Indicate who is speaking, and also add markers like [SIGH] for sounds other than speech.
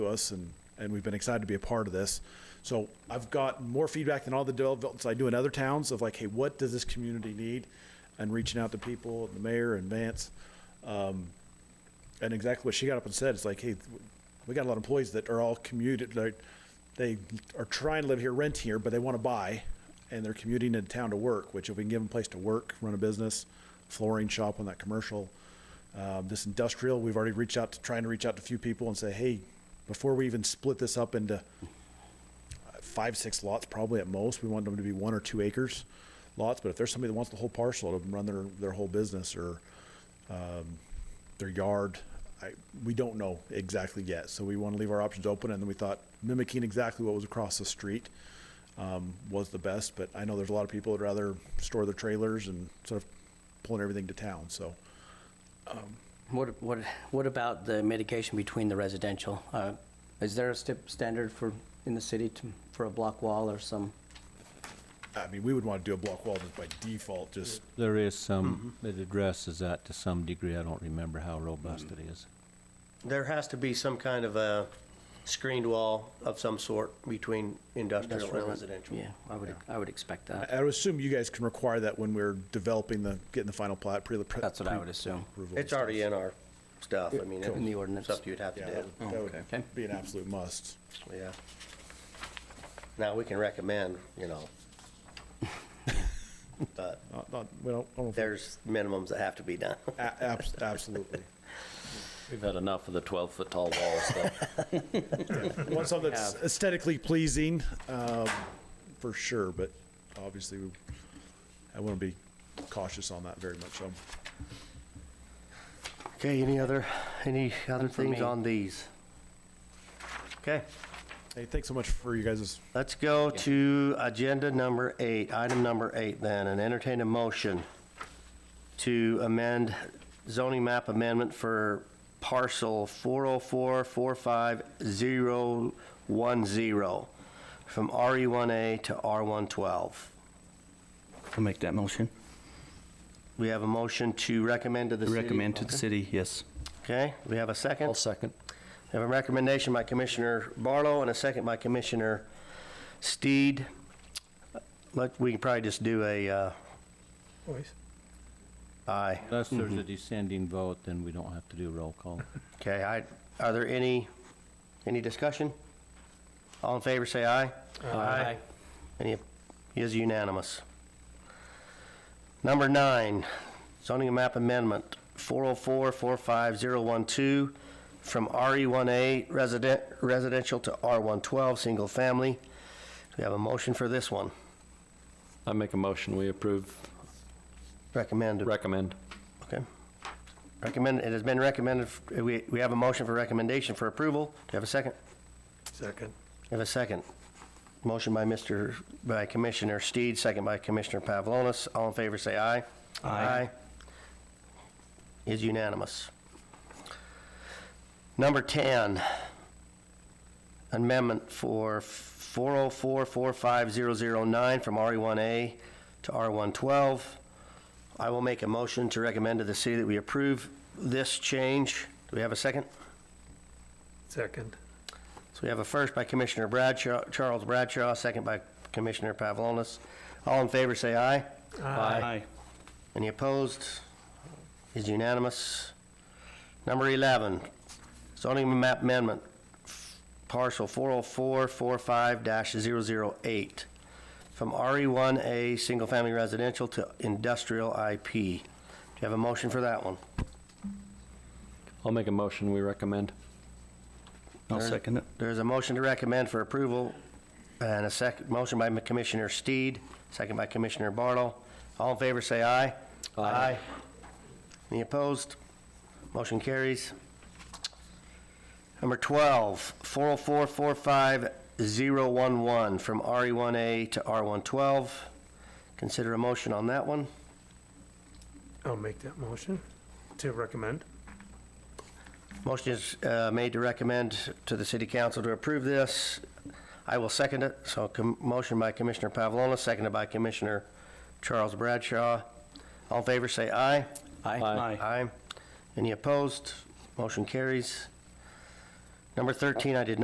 Speaker 1: to us, and, and we've been excited to be a part of this. So I've got more feedback than all the developments I do in other towns of like, hey, what does this community need? And reaching out to people, the mayor and Vance. Um, and exactly what she got up and said, it's like, hey, we got a lot of employees that are all commuted, like, they are trying to live here, rent here, but they want to buy, and they're commuting into town to work, which if we can give them a place to work, run a business, flooring shop on that commercial, um, this industrial, we've already reached out to, trying to reach out to a few people and say, hey, before we even split this up into uh, five, six lots probably at most, we want them to be one or two acres lots, but if there's somebody that wants the whole parcel to run their, their whole business or, um, their yard, I, we don't know exactly yet, so we want to leave our options open, and then we thought mimicking exactly what was across the street, um, was the best, but I know there's a lot of people that'd rather store their trailers and sort of pulling everything to town, so.
Speaker 2: What, what, what about the mitigation between the residential? Uh, Is there a stip- standard for, in the city to, for a block wall or some?
Speaker 1: I mean, we would want to do a block wall just by default, just,
Speaker 3: There is some, it addresses that to some degree. I don't remember how robust it is.
Speaker 4: There has to be some kind of a screened wall of some sort between industrial and residential.
Speaker 2: Yeah, I would, I would expect
Speaker 1: I
Speaker 2: that.
Speaker 1: I would assume you guys can require that when we're developing the, getting the final plat, pre. pre-
Speaker 2: That's what I would assume.
Speaker 1: approval and
Speaker 4: It's already
Speaker 1: stuff.
Speaker 4: in our stuff, I mean,
Speaker 2: In the ordinance.
Speaker 4: it's stuff you'd have to
Speaker 1: Yeah, that
Speaker 4: do,
Speaker 1: would- that would
Speaker 2: okay.
Speaker 1: be an absolute must.
Speaker 4: yeah. Now, we can recommend, you [LAUGHS] know, but
Speaker 1: Not, not, we don't, I don't know
Speaker 4: there's minimums that have to be done.
Speaker 1: if- a- abs- absolutely.
Speaker 5: We've had enough of the 12-foot tall walls, though.
Speaker 1: [LAUGHS] We Want something that's aesthetically pleasing, um, for sure, but obviously, we- I want to be cautious on that very much, so.
Speaker 4: Okay, any other, any other
Speaker 2: for things
Speaker 4: things
Speaker 2: me.
Speaker 4: on
Speaker 2: on
Speaker 4: these? Okay.
Speaker 1: Hey, thanks so much for you guys'
Speaker 4: Let's go to agenda number eight, item number eight then, and entertain a motion to amend zoning map amendment for parcel 404451010 from RE1A to R112.
Speaker 6: I'll make that motion.
Speaker 4: We have a motion to recommend to the city.
Speaker 6: Recommend to the city, yes.
Speaker 4: Okay, we have a 2nd
Speaker 6: second.
Speaker 4: I have a recommendation by Commissioner Barlow and a second by Commissioner Steed. Let, we can probably just do a, uh. Aye.
Speaker 3: Unless there's a descending vote, then we don't have to do roll call.
Speaker 4: Okay, I, are there any, any discussion? All in favor, say aye.
Speaker 2: Aye.
Speaker 4: Any, it is unanimous. Number nine, zoning map amendment, 404-45012, from RE1A resident, residential to R112, single family. Do we have a motion for this one?
Speaker 5: I make a motion, we approve,
Speaker 4: Recommended.
Speaker 5: recommend.
Speaker 4: Okay. Recommend, it has been recommended, we, we have a motion for recommendation for approval. Do you have a second?
Speaker 7: Second.
Speaker 4: I have a second. Motion by Mr., by Commissioner Steed, second by Commissioner Pavlonis. All in favor, say aye. Aye. Is unanimous. Number 10, amendment for 404-45009 from RE1A to R112. I will make a motion to recommend to the city that we approve this change. Do we have a second?
Speaker 7: Second.
Speaker 4: So we have a first by Commissioner Bradshaw, Charles Bradshaw, second by Commissioner Pavlonis. All in favor, say aye.
Speaker 6: Aye.
Speaker 4: Any opposed? Is unanimous. Number 11, zoning map amendment, parcel 40445-008, from E RE1A, single-family residential to industrial IP. Do you have a motion for that one?
Speaker 5: I'll make a motion, we recommend.
Speaker 6: I'll second it.
Speaker 4: There's a motion to recommend for approval, and a second, motion by Commissioner Steed, second by Commissioner Bartle. All in favor, say aye.
Speaker 5: Aye.
Speaker 4: Any opposed? Motion carries. Number oh 12, 404-45011, from RE1A to R112. Consider a motion on that one.
Speaker 7: I'll make that motion to recommend.
Speaker 4: Motion is uh, made to recommend to the city council to approve this. I will second it. So com- motion by Commissioner Pavlonis, seconded by Commissioner Charles Bradshaw. All in favor, say aye.
Speaker 2: Aye.
Speaker 4: Aye. Any opposed? Motion carries. Number 13, I did not.